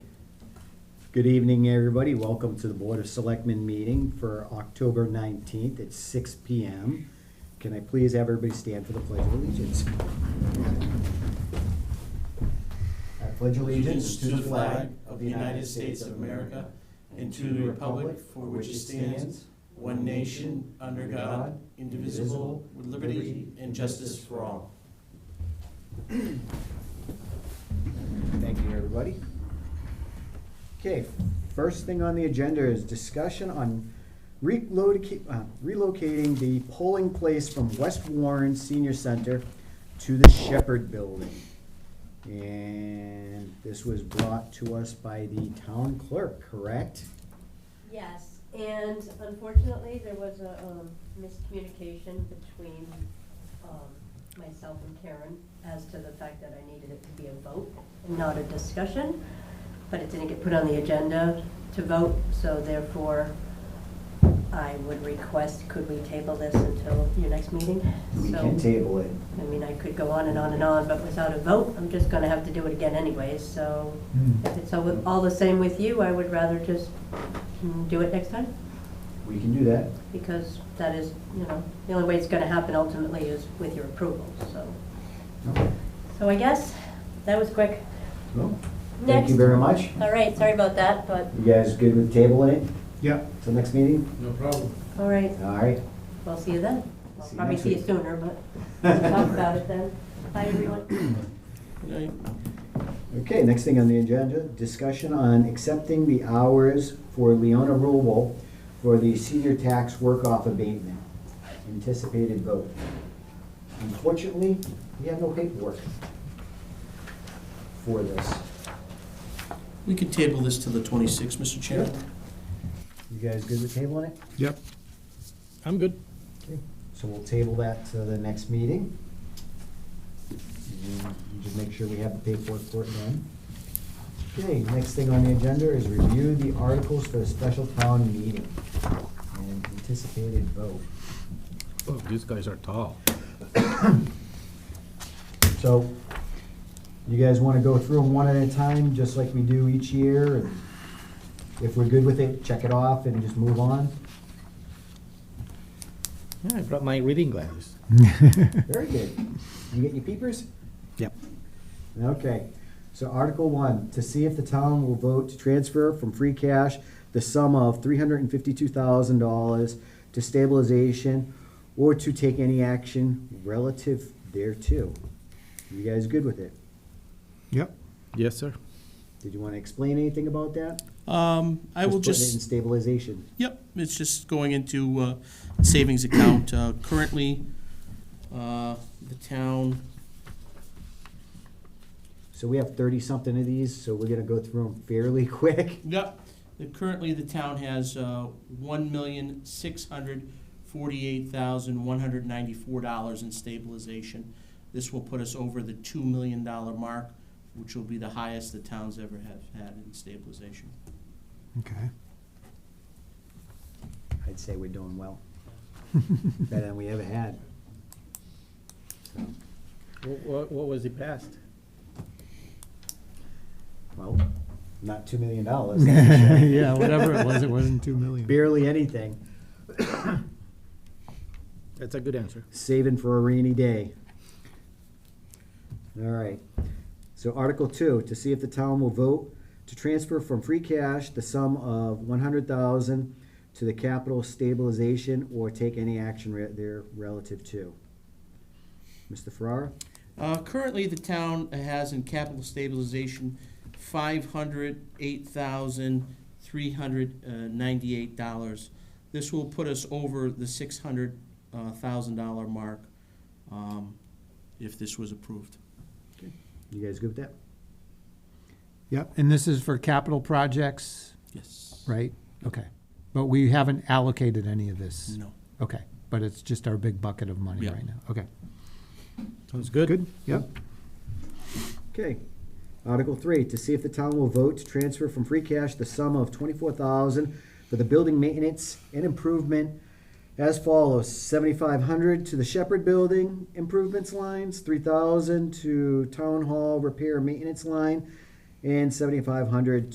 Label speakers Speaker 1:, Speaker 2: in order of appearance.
Speaker 1: Good evening, everybody. Welcome to the Board of Selectmen meeting for October 19th at 6 PM. Can I please have everybody stand for the Pledge of Allegiance? I pledge
Speaker 2: allegiance to the flag of the United States of America and to the republic for which it stands, one nation, under God, indivisible, with liberty and justice for all.
Speaker 1: Thank you, everybody. Okay, first thing on the agenda is discussion on reloca- uh, relocating the polling place from West Warren Senior Center to the Shepherd Building. And this was brought to us by the town clerk, correct?
Speaker 3: Yes, and unfortunately, there was a um, miscommunication between um, myself and Karen as to the fact that I needed it to be a vote and not a discussion, but it didn't get put on the agenda to vote, so therefore, I would request, could we table this until your next meeting? So,
Speaker 1: table it.
Speaker 3: I mean, I could go on and on and on, but without a vote, I'm just gonna have to do it again anyways, so
Speaker 1: Hmm.
Speaker 3: if it's all, all the same with you, I would rather just mm, do it next time,
Speaker 1: We can do that.
Speaker 3: because that is, you know, the only way it's gonna happen ultimately is with your approval, so. So I guess, that was quick.
Speaker 1: Well, Thank
Speaker 3: Next.
Speaker 1: you very much.
Speaker 3: All right, sorry about that, but,
Speaker 1: You guys good with tabling it
Speaker 4: Yeah,
Speaker 1: till next meeting?
Speaker 2: No problem.
Speaker 3: all right,
Speaker 1: All right.
Speaker 3: we'll see you then. I'll
Speaker 1: See you
Speaker 3: Probably
Speaker 1: next
Speaker 3: see you
Speaker 1: week.
Speaker 3: sooner, but we'll talk about it then. Bye, everyone.
Speaker 1: Okay, next thing on the agenda, discussion on accepting the hours for Leona Rubel for the senior tax work-off abatement. Anticipated vote. Unfortunately, we have no paperwork for this.
Speaker 2: We could table this to the 26th, Mr. Chairman.
Speaker 1: You guys good with tabling it?
Speaker 4: yep. I'm good.
Speaker 1: Okay, So we'll table that to the next meeting. And you Just make sure we have the paperwork for it then. Okay, next thing on the agenda is review the articles for the special town meeting and anticipated vote.
Speaker 4: Oh, these guys are tall.
Speaker 1: So you guys want to go through them one at a time, just like we do each year? and If we're good with it, check it off and just move on?
Speaker 5: Yeah, I brought my reading glasses.
Speaker 1: Very good. You get your peepers?
Speaker 5: Yep.
Speaker 1: Okay, so Article One, to see if the town will vote to transfer from free cash the sum of three hundred and fifty-two thousand dollars to stabilization or to take any action relative thereto. You guys good with it?
Speaker 4: Yep.
Speaker 5: Yes, sir.
Speaker 1: Did you wanna explain anything about that?
Speaker 2: Um, I will
Speaker 1: putting it
Speaker 2: just.
Speaker 1: In stabilization.
Speaker 2: Yep, it's just going into uh, savings account. Uh, Currently, uh, the town,
Speaker 1: So we have thirty-something of these, so we're gonna go through them fairly quick.
Speaker 2: yep, the- currently the town has uh, $1,648,194 in stabilization. This will put us over the $2 million mark, which will be the highest the town's ever have had in stabilization.
Speaker 4: Okay.
Speaker 1: I'd say we're doing well. Better than we ever had.
Speaker 5: What, what was the past?
Speaker 1: Well, not two million dollars.
Speaker 4: Yeah, whatever it was, it wasn't two million.
Speaker 1: Barely anything.
Speaker 5: That's a good answer.
Speaker 1: Saving for a rainy day. All right. So Article Two, to see if the town will vote to transfer from free cash the sum of one hundred thousand to the capital stabilization or take any action re- there relative to. Mr. Ferrara?
Speaker 2: Uh, currently, the town has in capital stabilization five hundred eight thousand three hundred ninety-eight dollars. This will put us over the six hundred uh, thousand dollar mark, um, if this was approved.
Speaker 1: You guys good with that?
Speaker 4: Yep, and this is for capital projects,
Speaker 2: Yes.
Speaker 4: right? Okay. But we haven't allocated any of this.
Speaker 2: No.
Speaker 4: Okay, but it's just our big bucket of money
Speaker 2: Yeah.
Speaker 4: right now. Okay.
Speaker 5: Sounds good.
Speaker 4: Good, yep.
Speaker 1: Okay. Article three, to see if the town will vote to transfer from free cash the sum of twenty-four thousand for the building maintenance and improvement as follows, seventy-five hundred to the Shepherd Building improvements lines, three thousand to Town Hall repair and maintenance line, and seventy-five hundred